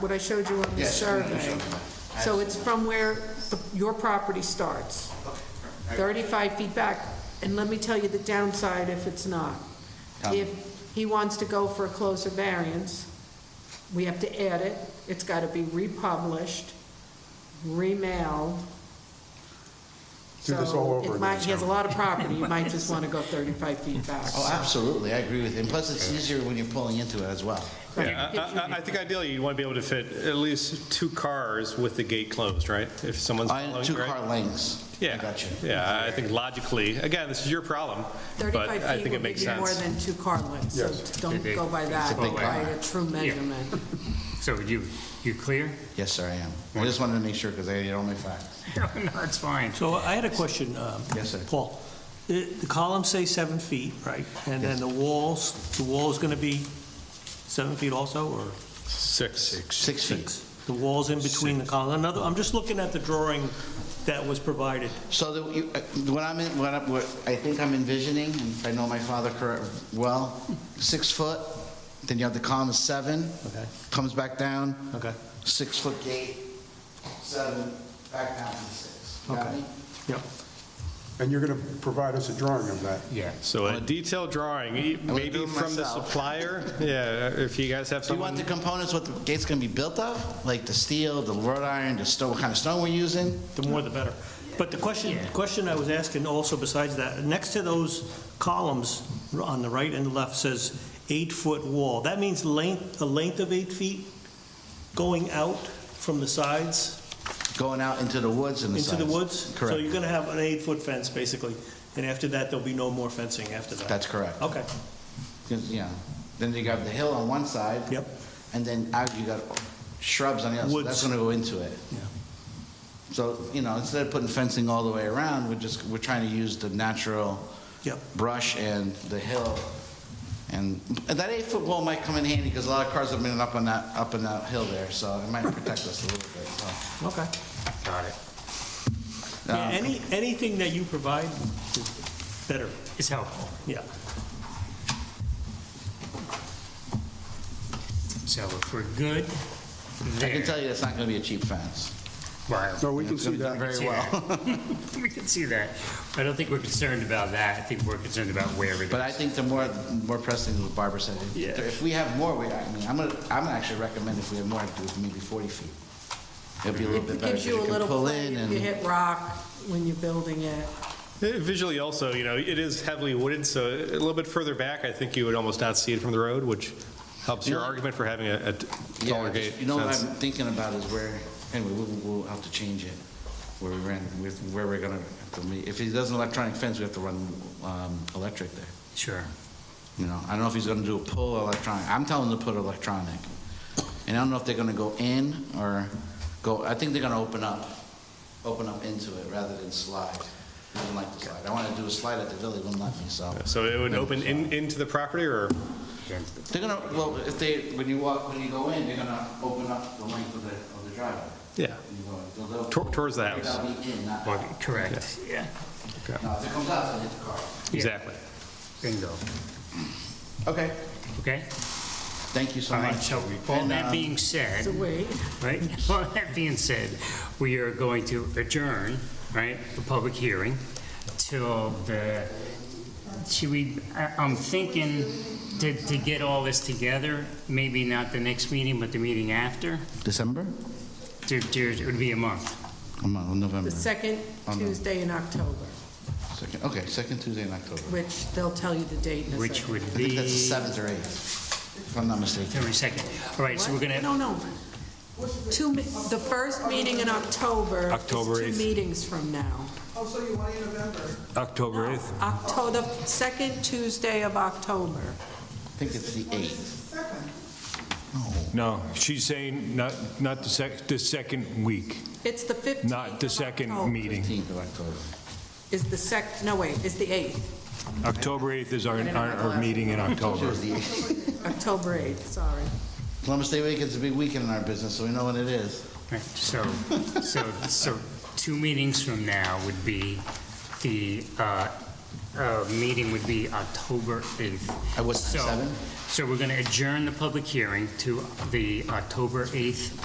what I showed you on the Yes, I know you survey. showed me that. So it's from where the- your property starts, 35 feet back. And let me tell you the downside if it's not. Tell me. If he wants to go for a closer variance, we have to add it. It's got to be republished, remailed. Do this all So over it might- again. He has a lot of property, you might just want to go 35 feet back. Oh, absolutely, I agree with you. And plus, it's easier when you're pulling into it as well. Yeah, I- I, I think ideally, you'd want to be able to fit at least two cars with the gate closed, right? If someone's. I- following, Two right? car lengths. Yeah. I got you. Yeah, I think logically, again, this is your problem, but 35 I feet will think it makes give you more sense. than two car lengths, so Yes. don't go by that, big by a true measurement. So you, you clear? Yes, sir, I am. I just wanted to make sure, because I had all my facts. No, no, it's fine. So I had a question, um, Yes, sir. Paul. The the columns say seven feet, right? And then the walls, the wall's going to be seven feet also, or Six. Six feet. six? The wall's in between the column. Another, I'm just looking at the drawing that was provided. So the- you- uh, what I'm, en- what I what I think I'm envisioning, and if I know my father correct, well, six foot, then you have the column is seven, Okay. comes back down, Okay. six foot gate, seven, back down to six. You got Okay. me? Yep. And you're going to provide us a drawing of that? Yeah. So a detailed drawing, e- gonna do maybe it from the myself. supplier, yeah, if you guys have Do you want the someone. components, what the gate's gonna be built of? Like the steel, the wrought iron, the stone, what kind of stone we're using? The more the better. But the question, question I was asking also besides that, next to those columns on the right and the left says eight-foot wall. That means length, a length of eight feet going out from the sides? Going out into the woods and the Into the sides. woods? So you're Correct. going to have an eight-foot fence, basically, and after that, there'll be no more fencing after that? That's correct. Okay, 'Cause, Yeah. Then you got the hill on one side. Yep. And then out you got shrubs on the other, so that's Woods. gonna go into it. yeah, So, you know, instead of putting fencing all the way around, we're just, we're trying to use the natural yep, brush and the hill. And and that eight-foot wall might come in handy, because a lot of cars have been up on that, up on that hill there, so it might protect us a little bit, so. okay. Got it. Yeah, Um, any, anything that you provide is better, It's helpful. yeah. So if we're good I can there, tell you it's not going to be a cheap fence. No, well, we can It's see going to be done that. very see well. we can see that. I don't think we're concerned about that. I think we're concerned about where it is. But I think the more, more pressing is what Barbara said. If- Yeah. If we have more, we, I mean, I'm gonna, I'm gonna actually recommend if we have more, do maybe forty feet. It'll be a little bit It better, gives 'cause you a you can little, pull play in if you and, hit rock when you're building it. Eh, Visually also, you know, it is heavily wooded, so a little bit further back, I think you would almost not see it from the road, which helps your Yeah. argument for having a a yeah, taller I gate just- you know, what fence. I'm thinking about is where, anyway, we'll, we'll have to change it, where we ran, with, where we're gonna, have to meet. if he does an electronic fence, we have to run, um, electric there. Sure. You know, I don't know if he's gonna do a pull electronic. I'm telling him to put electronic. And I don't know if they're gonna go in or go, I think they're gonna open up, open up into it rather than slide. I don't like the slide. I wanna do a slide at the village, wouldn't let me, so. So it would Then open in, into the property, or, They're gonna, well, if they, when you walk, when you go in, they're gonna open up the length of the, of the driveway. yeah, When you go in. They'll- they'll- Tor- towards the house. They'll be in, not out. Well, Correct. Yeah. No, if it comes out, then hit the car. exactly. Bingo. Okay. Okay? Thank you so All right, much. so all And, that um, being said, So wait, Hmm. right? All that being said, we are going to adjourn, right, the public hearing till the, should we, I- I'm thinking to, to get all this together, maybe not the next meeting, but the meeting after, December? to, to, it would be a month. Come on, November. the second Oh, no. Tuesday in October, Second, okay, second Tuesday in October. which they'll tell you the date in a Which second. would I think be, that's the seventh or eighth, if I'm not mistaken. every second. All right, so we're What? No, gonna, no. Two, me- the first meeting in October is October two eighth. meetings from now. October 8th. October, the second Tuesday of October. I think it's the eighth. No, she's saying not, not the sec, the second week, It's the 15th not the of second October. meeting. Fifteenth of October. Is the sec, no, wait, it's the 8th, October 8th is our, our, our meeting in October. It's the eighth. October 8th, sorry. Columbus Day weekend's a big weekend in our business, so we know when it is. right, so, so, so two meetings from now would be the uh, uh, meeting would be October 8th. At what time, So- seven? So we're going to adjourn the public hearing to the October 8th